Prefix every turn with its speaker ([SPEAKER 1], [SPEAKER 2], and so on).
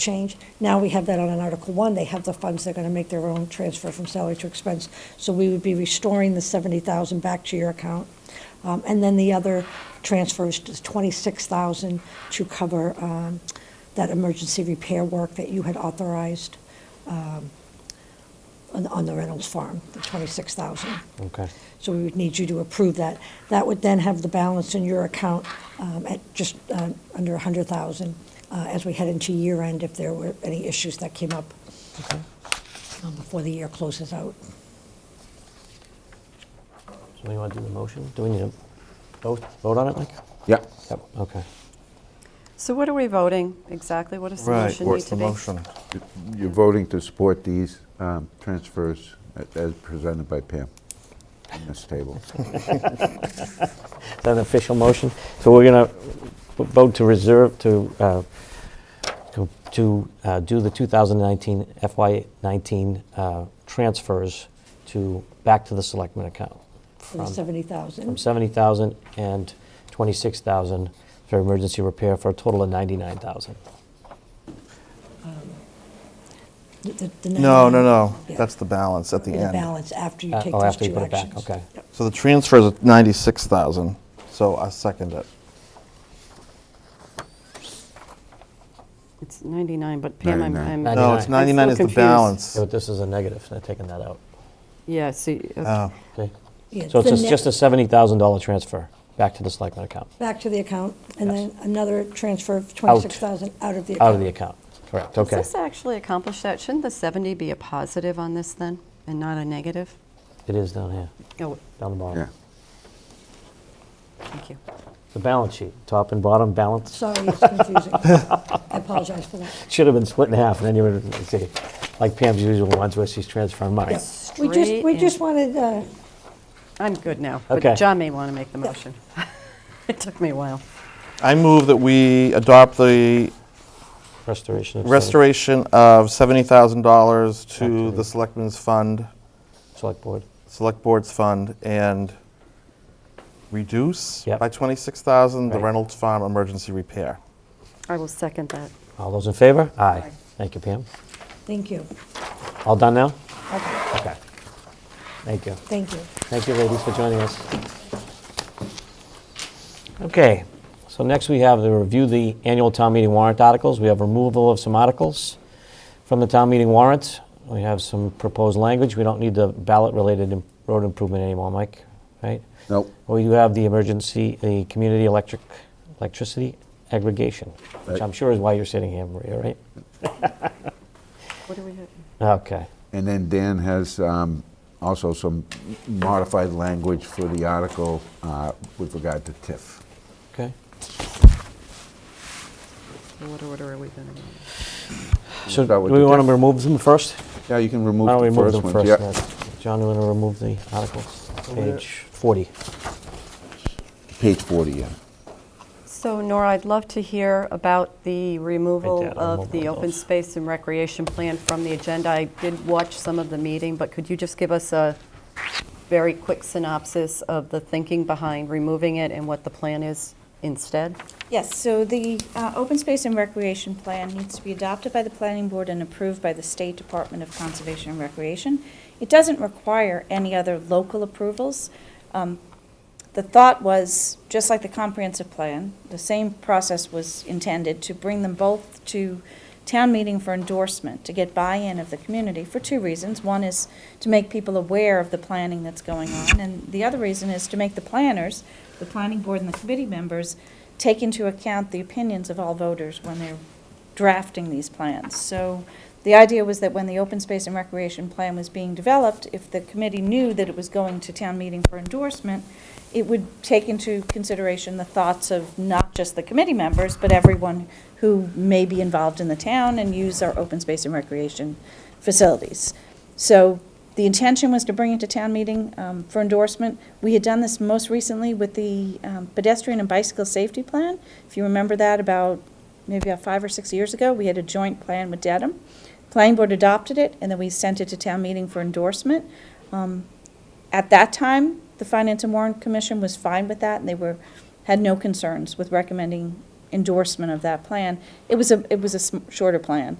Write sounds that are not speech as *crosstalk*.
[SPEAKER 1] change. Now we have that on an Article 1, they have the funds, they're going to make their own transfer from salary to expense. So we would be restoring the 70,000 back to your account. Um, And then the other transfer is just 26,000 to cover um, that emergency repair work that you had authorized um, on on the Reynolds Farm, the 26,000.
[SPEAKER 2] Okay.
[SPEAKER 1] So we would need you to approve that. That would then have the balance in your account um, at just uh, under 100,000 uh, as we head into year end if there were any issues that came up um, before the year closes out.
[SPEAKER 2] So you want to do the motion? Do we need to vote, vote on it, Mike?
[SPEAKER 3] Yeah.
[SPEAKER 2] Yep, okay.
[SPEAKER 4] So what are we voting exactly? What does the motion need
[SPEAKER 3] What's
[SPEAKER 4] to
[SPEAKER 3] the
[SPEAKER 4] be?
[SPEAKER 3] motion? You're voting to support these um, transfers a- as presented by Pam on this table.
[SPEAKER 2] Is that an official motion? So we're going to vote to reserve, to, uh, to- to uh, do the 2019 FY19 uh, transfers to, back to the selectmen account.
[SPEAKER 1] for the 70,000.
[SPEAKER 2] From- From 70,000 and 26,000 for emergency repair for a total of 99,000.
[SPEAKER 1] The- the- the
[SPEAKER 5] No, no,
[SPEAKER 1] 99
[SPEAKER 5] no.
[SPEAKER 1] Yeah.
[SPEAKER 5] That's the balance at the
[SPEAKER 1] The
[SPEAKER 5] end.
[SPEAKER 1] balance after you
[SPEAKER 2] Uh,
[SPEAKER 1] take
[SPEAKER 2] Oh,
[SPEAKER 1] those
[SPEAKER 2] after you
[SPEAKER 1] two
[SPEAKER 2] put it back,
[SPEAKER 1] actions.
[SPEAKER 2] okay.
[SPEAKER 5] So the transfer is 96,000, so I second it.
[SPEAKER 4] It's 99, but Pam, I'm-
[SPEAKER 3] 99.
[SPEAKER 4] I'm.
[SPEAKER 5] No, it's
[SPEAKER 2] Ninety-nine.
[SPEAKER 5] 99
[SPEAKER 4] I'm
[SPEAKER 5] is
[SPEAKER 4] still
[SPEAKER 5] the
[SPEAKER 4] confused.
[SPEAKER 5] balance.
[SPEAKER 2] So This is a negative, so they're taking that out.
[SPEAKER 4] Yeah, see, okay.
[SPEAKER 5] Oh,
[SPEAKER 2] Okay?
[SPEAKER 1] Yeah,
[SPEAKER 2] So
[SPEAKER 1] the
[SPEAKER 2] it's just-
[SPEAKER 1] net-
[SPEAKER 2] just a $70,000 transfer back to the selectmen account,
[SPEAKER 1] Back to the account, and
[SPEAKER 2] Yes.
[SPEAKER 1] then another transfer of 26,000 out of the account.
[SPEAKER 2] out of the account. Correct,
[SPEAKER 4] Does
[SPEAKER 2] okay.
[SPEAKER 4] this actually accomplish that? Shouldn't the 70 be a positive on this then, and not a negative?
[SPEAKER 2] It is down here,
[SPEAKER 4] Oh,
[SPEAKER 2] down the
[SPEAKER 3] Yeah.
[SPEAKER 2] bottom.
[SPEAKER 4] thank you.
[SPEAKER 2] The balance sheet, top and bottom balance, *laughs*
[SPEAKER 1] Sorry, it's confusing. I apologize for that.
[SPEAKER 2] should have been split in half, and then you would see, like Pam's usual ones where she's transferring money.
[SPEAKER 1] Yes. We just, we
[SPEAKER 4] Straight
[SPEAKER 1] just
[SPEAKER 4] in.
[SPEAKER 1] wanted, uh,
[SPEAKER 4] I'm good now.
[SPEAKER 2] Okay.
[SPEAKER 4] But John may want to make the motion. *laughs* It took me a while.
[SPEAKER 5] I move that we adopt the
[SPEAKER 2] Restoration of. select-
[SPEAKER 5] restoration of $70,000 to
[SPEAKER 2] Actually.
[SPEAKER 5] the Selectmen's Fund,
[SPEAKER 2] Select Board.
[SPEAKER 5] Select Board's Fund, and reduce
[SPEAKER 2] Yep.
[SPEAKER 5] by 26,000 the
[SPEAKER 2] Right.
[SPEAKER 5] Reynolds Farm emergency repair.
[SPEAKER 4] I will second that.
[SPEAKER 2] All those in favor? Aye.
[SPEAKER 4] Aye.
[SPEAKER 2] Thank you, Pam.
[SPEAKER 1] thank you.
[SPEAKER 2] All done now?
[SPEAKER 1] Okay,
[SPEAKER 2] Okay. Thank you.
[SPEAKER 1] thank you.
[SPEAKER 2] Thank you, ladies, for joining us. Okay, so next we have the review the annual town meeting warrant articles. We have removal of some articles from the town meeting warrant. We have some proposed language. We don't need the ballot-related im- road improvement anymore, Mike, right?
[SPEAKER 3] Nope.
[SPEAKER 2] We do have the emergency, the community electric, electricity aggregation, which
[SPEAKER 3] Right.
[SPEAKER 2] I'm sure is why you're sitting here, Maria, right?
[SPEAKER 4] What do we have?
[SPEAKER 2] Okay,
[SPEAKER 3] And then Dan has um, also some modified language for the article uh, with regard to TIF.
[SPEAKER 2] okay.
[SPEAKER 4] In What order are we going to go?
[SPEAKER 2] So do
[SPEAKER 3] Start with
[SPEAKER 2] we
[SPEAKER 3] the
[SPEAKER 2] want to
[SPEAKER 3] diff-
[SPEAKER 2] remove them first?
[SPEAKER 3] Yeah, you can remove
[SPEAKER 2] Why don't we
[SPEAKER 3] the
[SPEAKER 2] remove
[SPEAKER 3] first
[SPEAKER 2] them
[SPEAKER 3] one.
[SPEAKER 2] first?
[SPEAKER 3] Yeah.
[SPEAKER 2] then? John, you want to remove the articles?
[SPEAKER 5] there.
[SPEAKER 2] Page 40.
[SPEAKER 3] Page 40, yeah.
[SPEAKER 4] So Nora, I'd love to hear about the removal
[SPEAKER 2] Right there, I'll
[SPEAKER 4] of
[SPEAKER 2] move
[SPEAKER 4] the
[SPEAKER 2] on
[SPEAKER 4] open
[SPEAKER 2] those.
[SPEAKER 4] space and recreation plan from the agenda. I did watch some of the meeting, but could you just give us a very quick synopsis of the thinking behind removing it and what the plan is instead?
[SPEAKER 6] Yes, so the uh, Open Space and Recreation Plan needs to be adopted by the Planning Board and approved by the State Department of Conservation and Recreation. It doesn't require any other local approvals. Um, The thought was, just like the comprehensive plan, the same process was intended to bring them both to town meeting for endorsement, to get buy-in of the community for two reasons. One is to make people aware of the planning that's going on, and the other reason is to make the planners, the planning board and the committee members, take into account the opinions of all voters when they're drafting these plans. So the idea was that when the open space and recreation plan was being developed, if the committee knew that it was going to town meeting for endorsement, it would take into consideration the thoughts of not just the committee members, but everyone who may be involved in the town and use our open space and recreation facilities. So the intention was to bring it to town meeting um, for endorsement. We had done this most recently with the um, pedestrian and bicycle safety plan. If you remember that, about maybe about five or six years ago, we had a joint plan with Dedham. Planning board adopted it, and then we sent it to town meeting for endorsement. Um, At that time, the Finance and Warrant Commission was fine with that, and they were, had no concerns with recommending endorsement of that plan. It was a, it was a sm- shorter plan.